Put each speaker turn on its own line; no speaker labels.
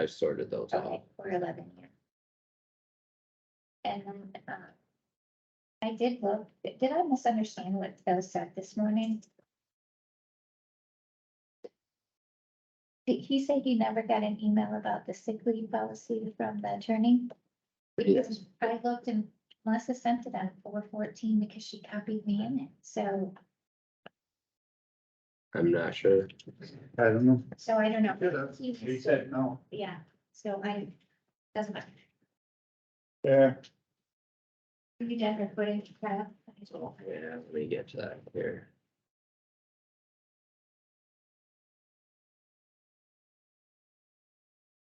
I've sorted those
Okay,
out.
four eleven, yeah. And then, uh, I did look, did I misunderstand what Phil said this morning? Did he say he never got an email about the sick leave policy from the attorney? Because I looked and Melissa sent it on four fourteen because she copied me in it, so,
I'm not sure.
I don't know.
so I don't know.
Yeah, that's-
He
He
was-
said no.
Yeah, so I, doesn't matter.
Yeah.
You did recording, Kyle?
Yeah, let me get to that here.